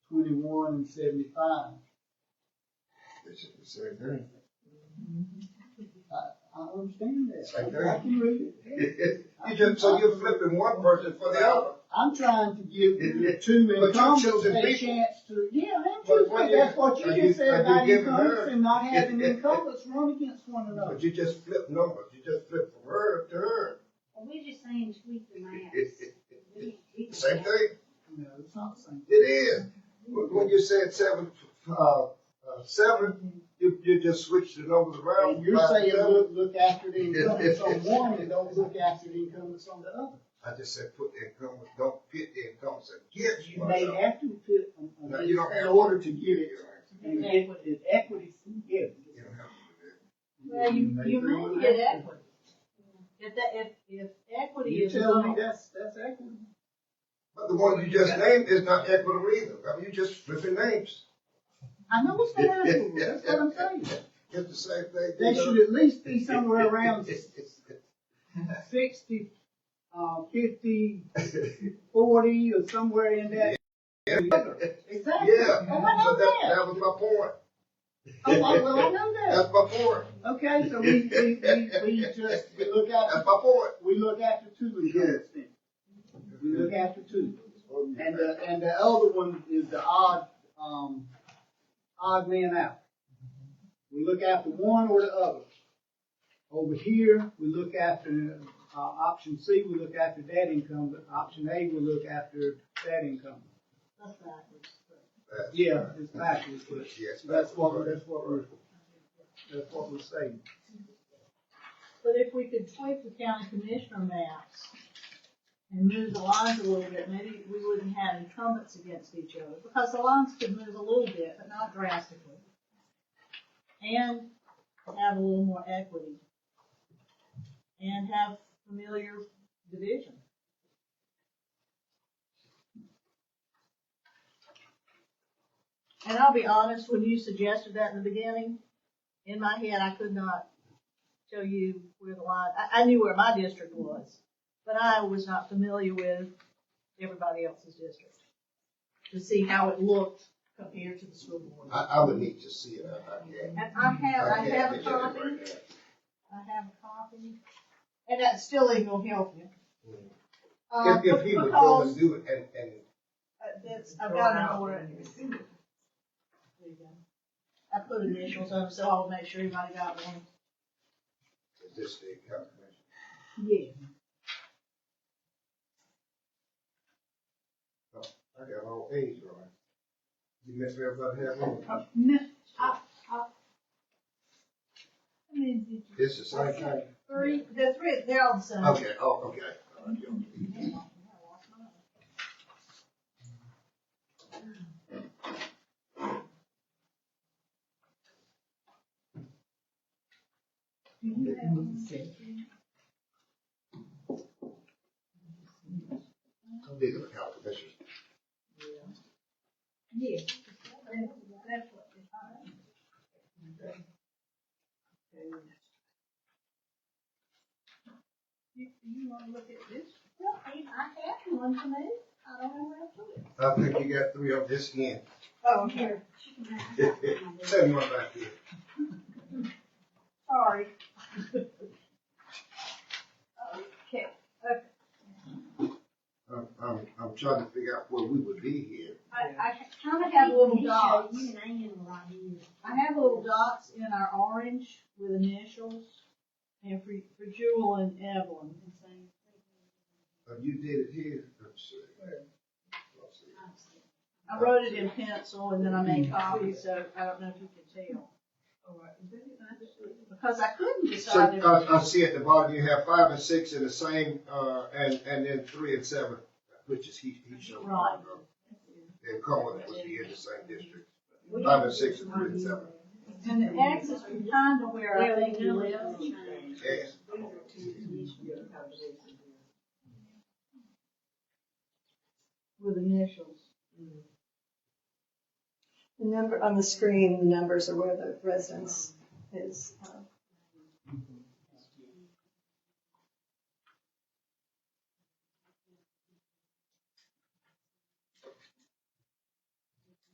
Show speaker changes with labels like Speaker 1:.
Speaker 1: seventy-one and seventy-five.
Speaker 2: They should be saying there.
Speaker 1: I understand that.
Speaker 2: Right there.
Speaker 1: I can read it.
Speaker 2: You just, so you're flipping one person for the other.
Speaker 1: I'm trying to give the two
Speaker 2: But you
Speaker 1: incumbents
Speaker 2: chosen
Speaker 1: a
Speaker 2: people.
Speaker 1: chance to, yeah, and
Speaker 2: But
Speaker 1: choose-
Speaker 2: what
Speaker 1: that's
Speaker 2: you-
Speaker 1: what
Speaker 2: are
Speaker 1: you
Speaker 2: you-
Speaker 1: just
Speaker 2: are you
Speaker 1: said about
Speaker 2: giving her-
Speaker 1: incumbents and not having incumbents run against one another.
Speaker 2: But you just flip numbers, you just flip from her to her,
Speaker 3: Well, we're just saying tweak the maps. We- we-
Speaker 2: same thing.
Speaker 1: No, it's not the same.
Speaker 2: It is. When when you said seven, uh, uh, seven, you, you just switched the numbers around.
Speaker 1: And you're
Speaker 2: Five,
Speaker 1: saying,
Speaker 2: seven.
Speaker 1: look, look after the incumbents on one and don't look after the incumbents on the other.
Speaker 2: I just said put the incumbents, don't pit the incumbents against
Speaker 1: You may
Speaker 2: one
Speaker 1: have to put, um,
Speaker 2: No, you don't
Speaker 1: in
Speaker 2: have-
Speaker 1: order to get it,
Speaker 2: another.
Speaker 1: and get it equity, yeah.
Speaker 2: You don't have to
Speaker 4: Well, you,
Speaker 1: Maybe
Speaker 4: you
Speaker 1: we'll
Speaker 4: may get
Speaker 1: have to.
Speaker 4: equity. If that, if, if equity
Speaker 1: You
Speaker 4: is
Speaker 1: tell me
Speaker 4: not,
Speaker 1: that's, that's equity.
Speaker 2: But the one you just named is not equitable either. I mean, you just flipping names.
Speaker 1: I know it's not equitable, that's what I'm saying.
Speaker 2: It's the same thing.
Speaker 1: They should at least be somewhere around sixty, uh, fifty, forty, or somewhere in that. Exactly.
Speaker 2: Yeah,
Speaker 1: Oh, I know
Speaker 2: so that,
Speaker 1: that.
Speaker 2: that was my point.
Speaker 1: Oh, well, I know that.
Speaker 2: That's my point.
Speaker 1: Okay, so we, we, we, we just, we look
Speaker 2: That's
Speaker 1: after,
Speaker 2: my point.
Speaker 1: we look after two incumbents then. We look after two. And the, and the other one is the odd, um, odd man out. We look after one or the other. Over here, we look after, uh, option C, we look after that incumbent. Option A, we look after that incumbent.
Speaker 4: that's backwards.
Speaker 2: That's-
Speaker 1: Yeah, it's backwards, but
Speaker 2: Yes,
Speaker 1: that's what, that's what we're, that's what we're saying.
Speaker 4: But if we could tweak the county commissioner maps and move the lines a little bit, maybe we wouldn't have incumbents against each other, because the lines could move a little bit, but not drastically. And have a little more equity. And have familiar division. And I'll be honest, when you suggested that in the beginning, in my head, I could not show you where the line, I, I knew where my district was, but I was not familiar with everybody else's district. To see how it looked compared to the school board.
Speaker 2: I, I would need to see it. I- I can't-
Speaker 4: And I have, I
Speaker 2: can't
Speaker 4: have a
Speaker 2: picture it right
Speaker 4: copy,
Speaker 2: now.
Speaker 4: I have a copy, and that still ain't gonna help you. Uh,
Speaker 2: If, if he would go and
Speaker 4: because,
Speaker 2: do it and, and
Speaker 4: uh, that's, I've got it for it. There you go. I put initials up, so I'll make sure everybody got one.
Speaker 2: this thing come.
Speaker 4: Yeah.
Speaker 2: Oh, I got all A's right. You missed everybody had one.
Speaker 4: No, I, I. I mean, did you-
Speaker 2: It's the same thing.
Speaker 4: Three, the three, they're all the same.
Speaker 2: Okay, oh, okay. All right, yeah. These are the county commissioners.
Speaker 4: Yes. That's what they are. You, you wanna look at this?
Speaker 3: Well, I have one to move. I don't know where to put it.
Speaker 2: I think you got three on this end.
Speaker 4: Oh, okay,
Speaker 2: Send one back here.
Speaker 4: sorry. Okay,
Speaker 2: I'm, I'm, I'm trying to figure out where we would be here.
Speaker 4: I, I kinda have little dots.
Speaker 3: You and Ann were right here.
Speaker 4: I have little dots in our orange with initials, and for, for Jewel and Evelyn.
Speaker 2: Oh, you did it here. Let's see. Let's see.
Speaker 4: I wrote it in pencil and then I made copies, so I don't know if you can tell. Because I couldn't
Speaker 2: So, uh,
Speaker 4: decide. if-
Speaker 2: I, I see at the bottom, you have five and six in the same, uh, and, and then three and seven, which is he, he showed.
Speaker 4: Right.
Speaker 2: And Cumberland would be in the same district,
Speaker 4: We-
Speaker 2: five and six and three and seven.
Speaker 4: And the X is behind to where I think you live.
Speaker 2: Yes.
Speaker 4: With initials.
Speaker 5: The number on the screen, the numbers are where the residence is. um,